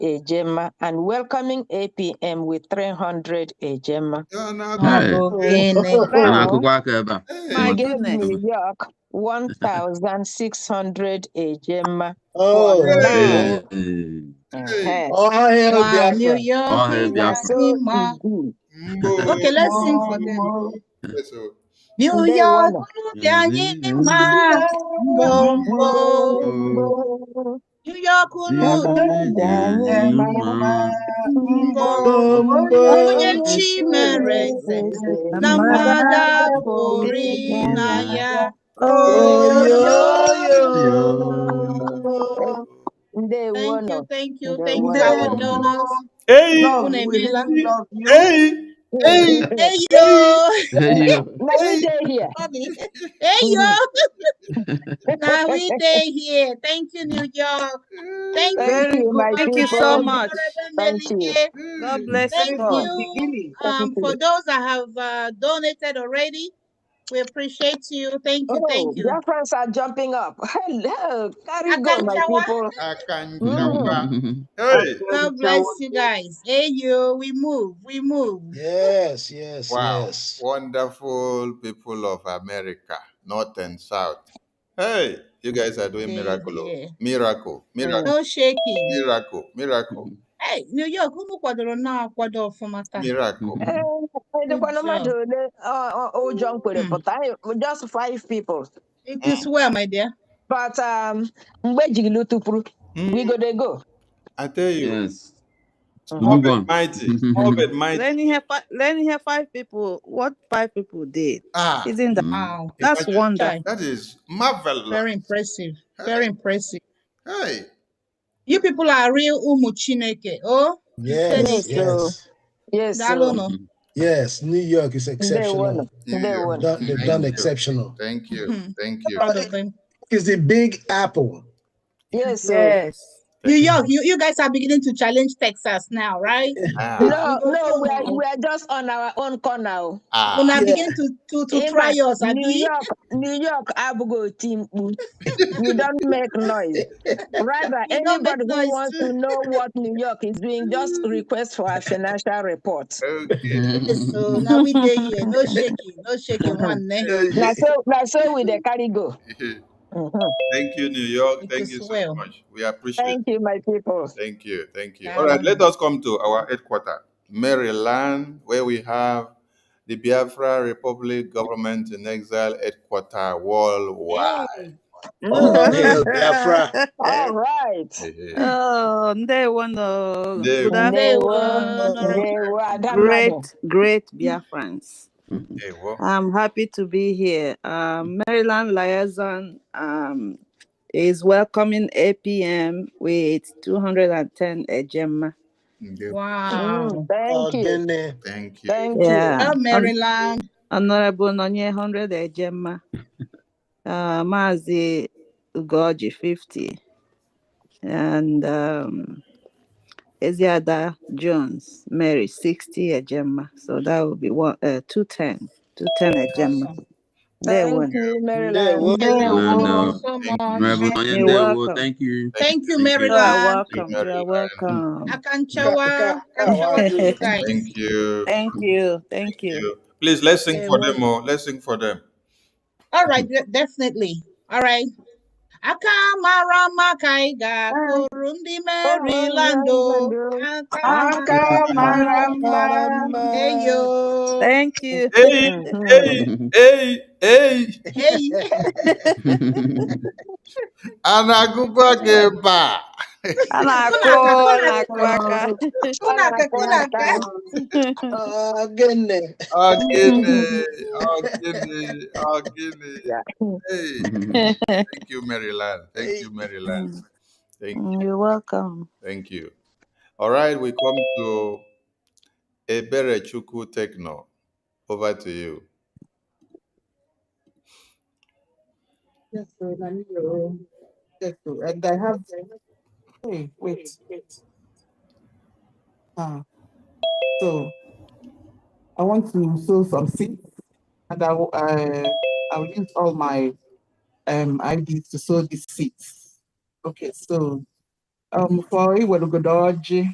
Ejema and welcoming APM with 300 Ejema. Yeah, Ah. now- Hey. Wow. Ana akụkọ aka ebe a. Hey, He My gave goodness. New York 1,600 Ejema. Oh, Yeah. hey. Ee, ee. hey, Uh-huh. all hail Wow, New Biafra. York. All hail we Biafra. love you, Ma. Indeed. Mbo. Okay, let's sing for them. Mbo. Yes, oh. New They York, wanna- Danny Ma. Mbo, mbo. New York, unu mbo. Onye chi mere eze na mgbada pụrụ na ya. Oyoyoyo. Thank you, Ndewono. thank you, Ndewono. thank you, our donors. Hey, Love, Unu we emeela. love you. hey, hey, Hey yo, Now we hey. stay here. hey yo, Mhm. now we day here. Thank you, New York. Thank Mm, Thank you, Very you, my good. Thank Thank you you, so people. much. Honorable Thank you. Mm. Melige. God Hey. bless Very you Thank good all. you beginning. Thank um, for you. those that have uh, donated already. We appreciate you. Thank you, thank Oh, you. Biafrans are jumping up. Hello. Carry go, my Akanchawa, people. Akanchawa. Mm. Hey. God bless you guys. Hey yo, we move, we move. Yes, yes, Wow. yes. Wonderful people of America, North and South. Hey, you guys are doing Hey miracle. oh. dear. Miracle, miracle, No shaking. miracle, miracle, Hey, New York, unu kwadoro na akwado ọfụma taa. miracle. Eh, Good edekwana mmadụ job. ole ọ- ọ- ụjọ m kwere Hmm. pụta anyị- just five people It Mm, is well, my dear. but um, mgbe ejigili tụpụrụ we mm. go dey go I tell you, Yes. Mhm. We move Ovid on. mighty, Ovid mighty. Lenny here, fi- Lenny here, five people. What five people did? Ah, Isn't that? Mm. Wow. That's imagine. wonderful. Chai. That is marvelous. Very impressive. Very Hey, impressive. hey. You people are real umu chineke. Oh, you said it. Yes, yes o yes. yes o Dalono. Yes, New York is ndewono exceptional. They've New ndewono done, they've York. done Thank you. exceptional. Thank you. Mhm. Thank you. Proud of them. It's the big apple. yes o Yes. New Thank you. York, you, you guys are beginning to challenge Texas now, right? Ah, Ah, you no go no show we are, now. we are just on our own corner o ah. Una Yeah. begin to, to, to ịma try us, new Abi. york new york abụghị oti mkpu we don't make noise rather You don't make anybody who noise wants too. to know what new york is doing just request for our financial report Okay. Mm-hmm. Yes, so now we day here. No shaking, no shaking Mhm. one eh? neck. na Hey. so na so we dey carry go Uh-huh. Mhm. Thank you, New York. It Thank is you so well. much. We appreciate Thank you, my people. Thank you. Thank you. All right, Dalono. let us come to our headquarters, Maryland, where we have the Biafra Republic Government in Exile headquarters worldwide. Hey. All Mm. hail Biafra. Eh. All right. Hey, oh, they wonder. hey. Good afternoon, They Ndewo, were, Honorable. they were that great, mother. great Biafrans. Hey, well, I'm happy to be here. Um, Maryland Liaison um, is welcoming APM with 210 Ejema. okay. Mm, Wow. thank Oh, you. Guinea. Thank you. Thank you. Yeah. Well, Hon- Maryland. Honorable Nonye 100 Ejema. Uh, Mazi Ugoji 50. And um, Eziada Jones, Mary 60 Ejema. So that would be one, uh, 210. 210 Ejema. Awesome. There Thank one. you, Maryland. Ndewo. Ndewo, Thank you. Thank you so much. And uh, Honorable You're Onyendewo, welcome. thank you. Thank Thank you, thank you. You Maryland. are Thank you, welcome. You are Maryland. welcome. Ka- Akanchawa, ka- Akanchawa to you Kawaju. guys. Thank you. Thank you. Thank Thank you. you. Please let's sing for Ndewo. them all. Let's sing for them. All right, de- definitely. All right. Aka mara maka ị ga-akụrụ ndị Maryland o. Aka mara maka Aka mara mara eyo. mma. Thank you. Hey, hey, hey, hey. Hey, Anagubageba. Anakụ, kuna aka, kuna anakụ aka. kuna aka, kuna aka. Oh, Guinea. Oh, Ogene, Oh, Ogene, Ogene. Oh, Hey, thank you, Maryland. Thank Hey. you, Maryland. Thank you. You're welcome. Thank you. All right, we come to Ebere Chuku Techno. Over to you. Yes, sir, I need your- yes, sir, And I have. Hey, wait. Ah, so I want to sow some seeds, and I will. Uh, I will use all my um ideas to sow these seeds. Okay, so um, for Iwelugodoji,